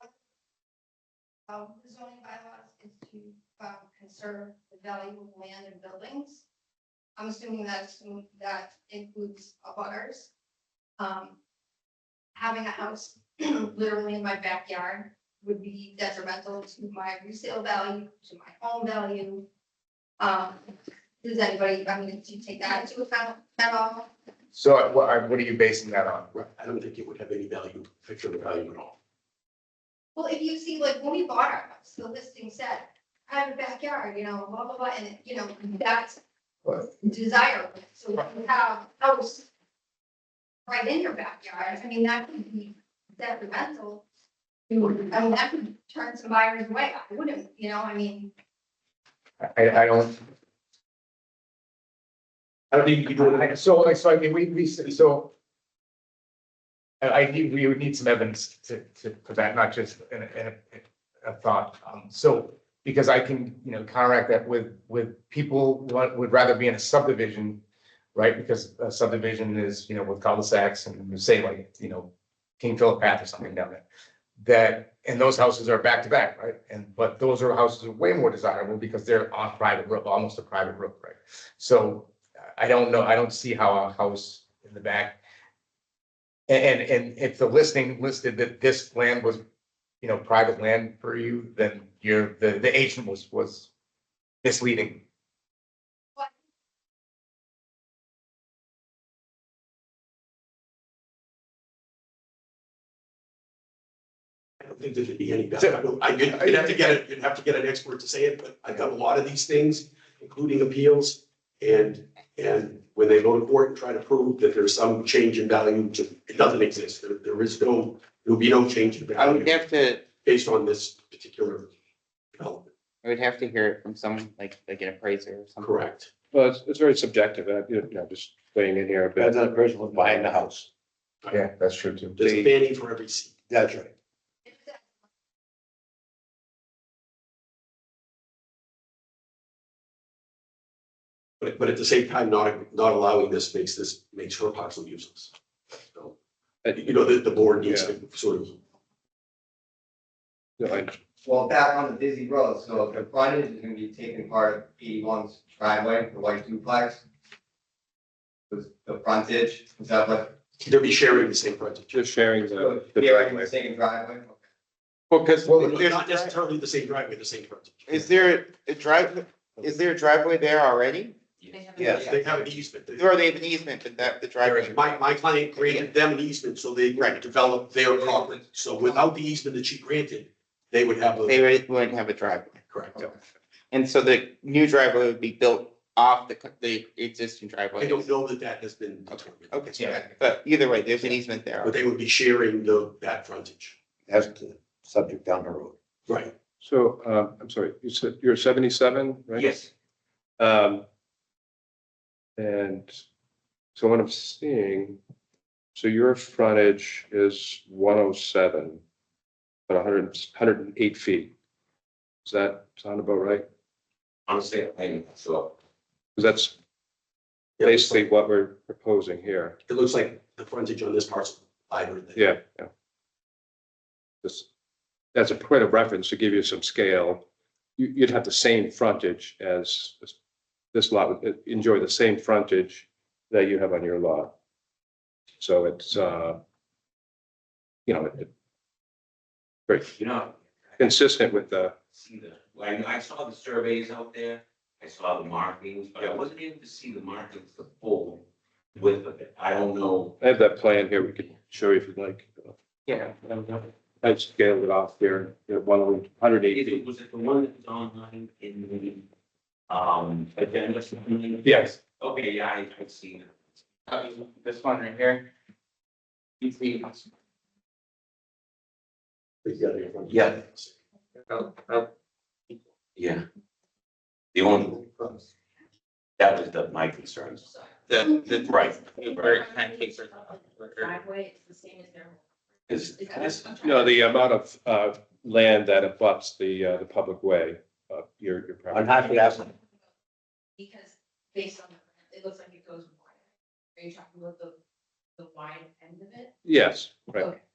of Um, the zoning bylaws is to um, conserve the value of land and buildings. I'm assuming that's, that includes abutters. Um, Having a house literally in my backyard would be detrimental to my resale value, to my home value. Um, Does anybody, I mean, do you take that into account at all? So what are, what are you basing that on? Right, I don't think it would have any value, picture of value at all. Well, if you see, like, when we bought our house, the listing said, private backyard, you know, blah, blah, blah, and, you know, that's Right. desirable, so if you have a house right in your backyard, I mean, that could be detrimental. I mean, that could turn some buyers away, I wouldn't, you know, I mean, I, I don't, I don't think you could do it. I- so, I- so I mean, we, we, so. I, I need, we would need some evidence to, to, for that, not just in, a- in a, a thought. Um, so, because I can, you know, counteract that with, with people would, would rather be in a subdivision. Right, because a subdivision is, you know, with cul-de-sacs and say like, you know, King Philip Path or something down there. That, and those houses are back to back, right? And, but those are houses are way more desirable because they're on private road, almost a private road, right? So I don't know, I don't see how a house in the back. And, and, and if the listing listed that this land was, you know, private land for you, then you're, the, the agent was, was misleading. I don't think there'd be any value. I don't- I, you'd you'd have to get it, you'd have to get an expert to say it, but I've done a lot of these things, including appeals. And, and when they go to court and try to prove that there's some change in value, just- it doesn't exist. There, there is no, there'll be no change in I would value have to, based on this particular development, I would have to hear it from someone like, like an appraiser or something. correct? Well, it's, it's very subjective, uh, you know, just weighing in here, but. on the person who's buying the house. Yeah, that's true too. There's a banning for every seat. That's right. if that But, but at the same time, not, not allowing this makes this, makes her parcel useless. So, uh, you know, the, the board needs to sort of, Well, back on the busy road, so if the frontage is gonna be taken part of eighty-one's driveway, the white duplex. The, the frontage, is that what, they'll be sharing the same frontage. Just sharing the, the yeah, we're driveway. saying driveway? Because Not there's, necessarily the same driveway, the same frontage. is there a drive, is there a driveway there already? Yes. They have an easement. They- Or they have an easement and that the driveway? My, my client granted them an easement so they could develop their property. So without the easement that she granted, they would have a, They wouldn't have a driveway. correct. And so the new driveway would be built off the, the existing I driveway. don't know that that has been determined. Okay, Yeah. but either way, there's an easement there. But they would be sharing the, that frontage. That's the subject down the road. Right. So, um, I'm sorry, you said you're seventy-seven, right? Yes. Um, and so what I'm seeing, so your frontage is one oh seven, but a hundred, hundred and eight feet. Does that sound about right? Honestly, I'm not sure. Because that's Yeah, it looks basically what we're proposing here. like- It looks like the frontage on this parcel, either. than- Yeah, yeah. Just, that's a point of reference to give you some scale. You, you'd have the same frontage as as this lot, would enjoy the same frontage that you have on your lot. So it's, uh, you know, it- very You know, I consistent with the, see the, well, I, I saw the surveys out there, I saw the markings, but I wasn't able to see the markings, the full width of it. I don't know. I have that plan here, we could show you if you'd like. Yeah. I scaled it off there, at one hundred eight Is it- feet. Was it the one that's online in the, um, agenda? something? Yes. Okay, yeah, I, I've seen it. This one right here. You see, Yeah. Yeah. The only, that was the, my concerns. the, the. Right. Very kind of case or- driveway, it's the same as their. Is, is that is, what I'm trying No, the amount of, uh, land that abuts the, uh, the public way, uh, your, your property. I'm happy to ask, to- Because based on, the it looks like it goes wider. Are you talking about the, the wide end of it? Yes, right. Okay.